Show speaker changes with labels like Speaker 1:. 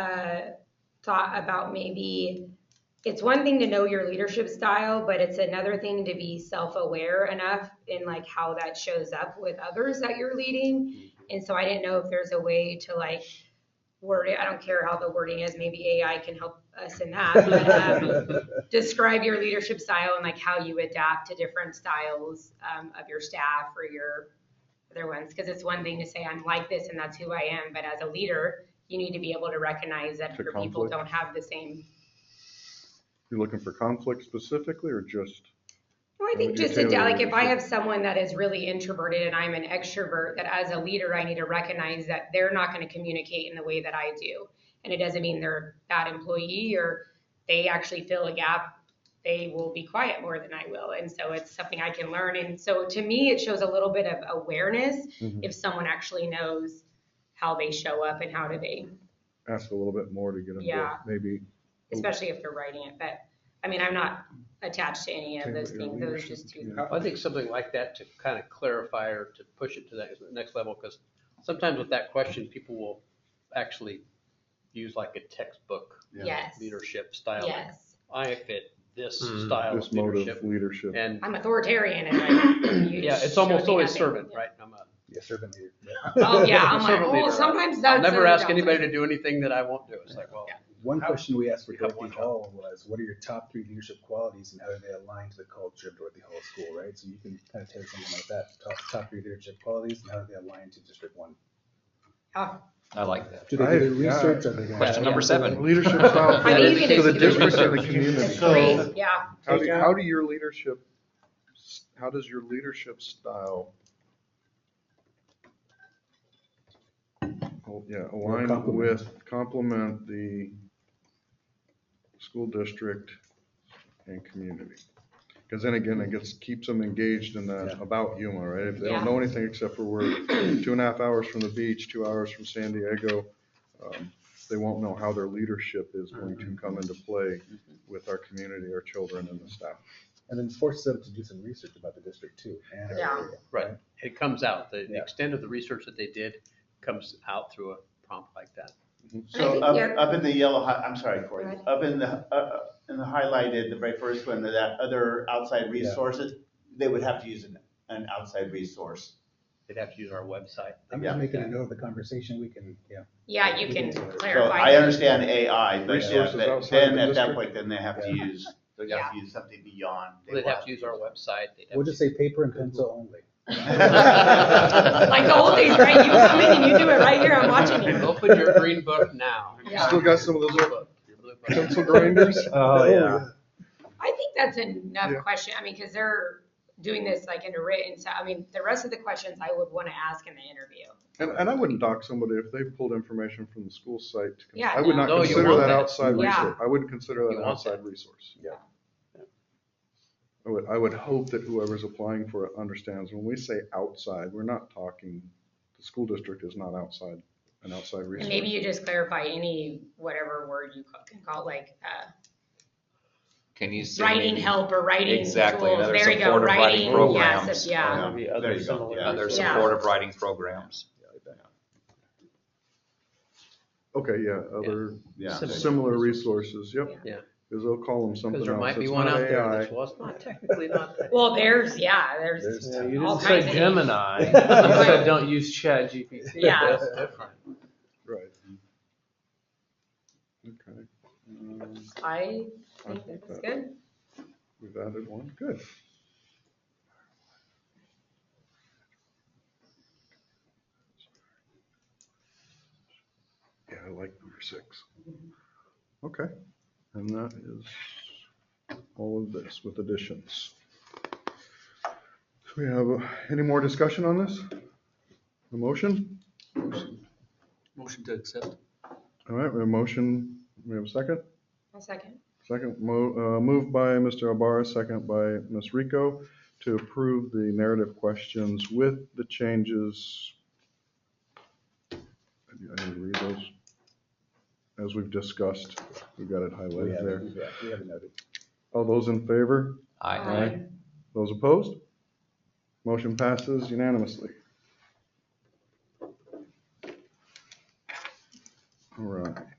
Speaker 1: uh, thought about maybe it's one thing to know your leadership style, but it's another thing to be self-aware enough in like how that shows up with others that you're leading. And so I didn't know if there's a way to like word it. I don't care how the wording is. Maybe AI can help us in that. But, um, describe your leadership style and like how you adapt to different styles um, of your staff or your other ones. Because it's one thing to say I'm like this and that's who I am, but as a leader, you need to be able to recognize that
Speaker 2: To
Speaker 1: other people
Speaker 2: conflict.
Speaker 1: don't have the same.
Speaker 2: You looking for conflict specifically or just,
Speaker 1: No, I
Speaker 2: How
Speaker 1: think
Speaker 2: would you
Speaker 1: just a,
Speaker 2: tailor
Speaker 1: like if I
Speaker 2: leadership?
Speaker 1: have someone that is really introverted and I'm an extrovert, that as a leader I need to recognize that they're not going to communicate in the way that I do, and it doesn't mean they're a bad employee or they actually fill a gap. They will be quiet more than I will, and so it's something I can learn. And so to me, it shows a little bit of awareness
Speaker 2: Mm-hmm.
Speaker 1: if someone actually knows how they show up and how do they,
Speaker 2: ask a little bit more to get into
Speaker 1: Yeah.
Speaker 2: maybe?
Speaker 1: especially if they're writing it. But I mean, I'm not attached to any of
Speaker 2: tailor
Speaker 1: those
Speaker 2: your
Speaker 1: things. Those are
Speaker 2: leadership
Speaker 1: just two.
Speaker 2: to-
Speaker 3: I think something like that to kind of clarify or to push it to that next level, because sometimes with that question, people will actually use like a textbook
Speaker 2: Yeah.
Speaker 1: Yes.
Speaker 3: leadership style. like,
Speaker 1: Yes.
Speaker 3: I fit this
Speaker 4: Mm.
Speaker 3: style
Speaker 2: This
Speaker 3: of
Speaker 2: mode of
Speaker 3: leadership.
Speaker 2: leadership.
Speaker 3: And,
Speaker 1: I'm authoritarian and like, you
Speaker 3: yeah, it's
Speaker 1: showed
Speaker 3: almost
Speaker 1: me
Speaker 3: always
Speaker 1: nothing.
Speaker 3: servant, right? I'm a-
Speaker 4: Yeah, servant leader.
Speaker 1: Oh, yeah, I'm
Speaker 3: Servant
Speaker 1: like,
Speaker 3: leader,
Speaker 1: oh,
Speaker 3: right?
Speaker 1: sometimes
Speaker 3: I'll
Speaker 1: that's.
Speaker 3: never ask anybody to do anything that I won't do. It's like, well,
Speaker 1: Yeah.
Speaker 4: One
Speaker 3: How-
Speaker 4: question we asked for
Speaker 3: you have one
Speaker 4: Dorothy
Speaker 3: job.
Speaker 4: Hall was, what are your top three leadership qualities and how do they align to the culture of Dorothy Hall School, right? So you can kind of take something like that, top, top three leadership qualities and how do they align to District One?
Speaker 1: Oh,
Speaker 5: I like that.
Speaker 4: Do they
Speaker 2: I-
Speaker 4: do
Speaker 2: yeah.
Speaker 4: research? Are they gonna-
Speaker 5: Question number seven.
Speaker 2: Leadership style
Speaker 1: I mean, you
Speaker 2: for
Speaker 1: can
Speaker 2: the
Speaker 1: do
Speaker 2: district and the
Speaker 1: leadership.
Speaker 2: community.
Speaker 1: That's great, yeah.
Speaker 2: How do,
Speaker 4: Take out-
Speaker 2: how do your leadership, how does your leadership style? Oh, Yeah, align
Speaker 4: complement.
Speaker 2: with, complement the school district and community. Because then again, it gets, keeps them engaged in that
Speaker 4: Yeah.
Speaker 2: about Yuma, right? If they
Speaker 1: Yeah.
Speaker 2: don't know anything except for we're two and a half hours from the beach, two hours from San Diego, um, they won't know how their leadership is going
Speaker 4: Mm-hmm.
Speaker 2: to come into play with our community, our children and the staff.
Speaker 4: And then force them to do some research about the district too. and our
Speaker 1: Yeah.
Speaker 4: area.
Speaker 3: right, it comes out. The the
Speaker 4: Yeah.
Speaker 3: extent of the research that they did comes out through a prompt like that.
Speaker 1: I
Speaker 6: So
Speaker 1: think you're-
Speaker 6: up, up in the yellow, hi- I'm sorry,
Speaker 1: Go
Speaker 6: Corey,
Speaker 1: ahead.
Speaker 6: up in the, uh, uh, in the highlighted, the very first one, that other outside
Speaker 4: Yeah.
Speaker 6: resources, they would have to use an, an outside resource.
Speaker 3: They'd have to use our website.
Speaker 4: I'm
Speaker 6: Yeah.
Speaker 4: just making a note of the conversation, we can, yeah.
Speaker 1: Yeah, you can
Speaker 6: So
Speaker 1: clarify.
Speaker 6: I understand AI, but yeah,
Speaker 2: Resources
Speaker 6: but
Speaker 2: outside
Speaker 6: then
Speaker 2: the
Speaker 6: at that
Speaker 2: district.
Speaker 6: point, then they have to
Speaker 4: Yeah.
Speaker 6: use, they have to use something beyond. they
Speaker 3: They'd
Speaker 6: will
Speaker 3: have to use our website. They'd have
Speaker 4: We'll
Speaker 3: to-
Speaker 4: just say paper and pencil only.
Speaker 1: Like the whole thing, right? You come in and you do it right here, I'm watching you.
Speaker 3: Open your green book now.
Speaker 1: Yeah.
Speaker 2: Still got some of
Speaker 3: Blue
Speaker 2: those little
Speaker 3: book, your blue book.
Speaker 2: pencil grinders?
Speaker 4: Oh, yeah.
Speaker 1: I think that's enough
Speaker 2: Yeah.
Speaker 1: question, I mean, because they're doing this like in a written, so, I mean, the rest of the questions I would want to ask in the interview.
Speaker 2: And, and I wouldn't dock somebody if they pulled information from the school site. to con-
Speaker 1: Yeah,
Speaker 2: I would not
Speaker 3: no. No, you
Speaker 2: consider
Speaker 3: want
Speaker 2: that
Speaker 3: that.
Speaker 2: outside
Speaker 1: Yeah.
Speaker 2: resource. I wouldn't consider that
Speaker 3: You
Speaker 2: an
Speaker 3: want that.
Speaker 2: outside resource.
Speaker 4: Yeah.
Speaker 2: I would, I would hope that whoever's applying for it understands, when we say outside, we're not talking, the school district is not outside, an outside
Speaker 1: And
Speaker 2: resource.
Speaker 1: maybe you just clarify any, whatever word you ca- can call, like, uh,
Speaker 5: Can you say?
Speaker 1: writing
Speaker 5: maybe
Speaker 1: help or writing tools.
Speaker 5: Exactly, another
Speaker 1: There you go,
Speaker 5: supportive writing
Speaker 1: writing, yes,
Speaker 5: programs.
Speaker 1: yeah.
Speaker 6: Yeah,
Speaker 3: Maybe
Speaker 6: there
Speaker 3: other
Speaker 6: you go,
Speaker 3: similar-
Speaker 6: yeah.
Speaker 5: Other
Speaker 1: Yeah.
Speaker 5: supportive writing programs.
Speaker 2: Okay, yeah, other
Speaker 6: Yeah.
Speaker 3: Similar.
Speaker 2: similar resources, yep.
Speaker 3: Yeah.
Speaker 2: Because they'll call them something
Speaker 3: Because
Speaker 2: else.
Speaker 3: there might be
Speaker 2: It's
Speaker 3: one
Speaker 2: not
Speaker 3: out there
Speaker 2: AI.
Speaker 3: that's, well, it's not technically not. that.
Speaker 1: Well, there's, yeah, there's,
Speaker 4: There's-
Speaker 7: You
Speaker 1: All
Speaker 7: didn't
Speaker 1: kinds
Speaker 7: say
Speaker 1: of
Speaker 7: Gemini. You said don't use Chat GPT.
Speaker 1: Yeah.
Speaker 7: That's different.
Speaker 2: Right. Okay.
Speaker 1: I
Speaker 2: I
Speaker 1: think
Speaker 2: think
Speaker 1: that's
Speaker 2: that-
Speaker 1: good.
Speaker 2: We've added one, good. Yeah, I like number six. Okay, and that is all of this with additions. Do we have uh, any more discussion on this? A motion?
Speaker 3: Motion to accept.
Speaker 2: All right, we have a motion, we have a second?
Speaker 1: A second.
Speaker 2: Second, mo- uh, moved by Mr. Ibarra, second by Ms. Rico, to approve the narrative questions with the changes. I need I need to read those. As we've discussed, we've got it
Speaker 4: We
Speaker 2: highlighted
Speaker 4: have
Speaker 2: there.
Speaker 4: it, Oh, yeah, we have it noted.
Speaker 2: All those in favor?
Speaker 5: I,
Speaker 2: Aye. Those opposed? Motion passes unanimously. All right.